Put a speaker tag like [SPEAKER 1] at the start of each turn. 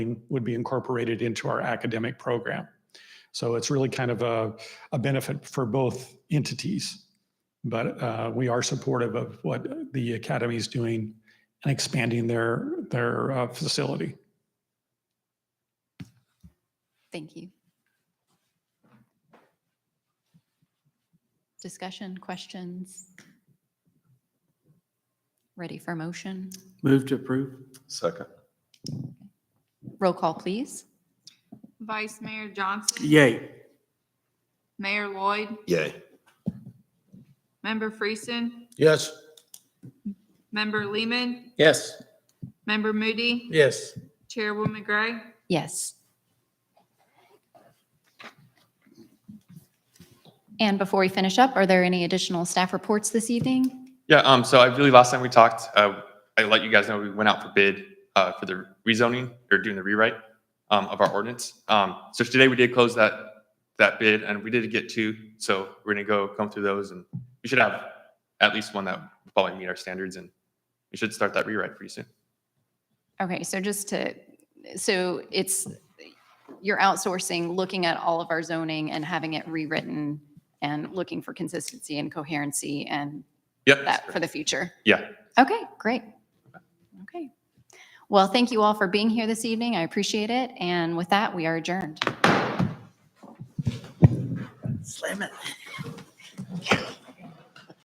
[SPEAKER 1] would be incorporated into our academic program. So it's really kind of a, a benefit for both entities. But uh, we are supportive of what the academy is doing and expanding their, their uh, facility.
[SPEAKER 2] Thank you. Discussion, questions? Ready for motion?
[SPEAKER 3] Move to approve?
[SPEAKER 4] Second.
[SPEAKER 2] Roll call, please.
[SPEAKER 5] Vice Mayor Johnson.
[SPEAKER 3] Yay.
[SPEAKER 5] Mayor Lloyd.
[SPEAKER 4] Yay.
[SPEAKER 5] Member Freeson.
[SPEAKER 4] Yes.
[SPEAKER 5] Member Lehman.
[SPEAKER 3] Yes.
[SPEAKER 5] Member Moody.
[SPEAKER 3] Yes.
[SPEAKER 5] Chairwoman Gray.
[SPEAKER 2] Yes. And before we finish up, are there any additional staff reports this evening?
[SPEAKER 6] Yeah, um, so I believe last time we talked, uh, I let you guys know we went out for bid, uh, for the rezoning or doing the rewrite, um, of our ordinance. Um, so today we did close that, that bid and we did get two. So we're gonna go come through those and we should have at least one that will probably meet our standards and we should start that rewrite pretty soon.
[SPEAKER 2] Okay, so just to, so it's, you're outsourcing, looking at all of our zoning and having it rewritten and looking for consistency and coherency and
[SPEAKER 6] Yep. that's
[SPEAKER 2] that for
[SPEAKER 6] correct.
[SPEAKER 2] the future.
[SPEAKER 6] Yeah.
[SPEAKER 2] Okay, great. Okay. Well, thank you all for being here this evening. I appreciate it. And with that, we are adjourned.
[SPEAKER 7] Slam it.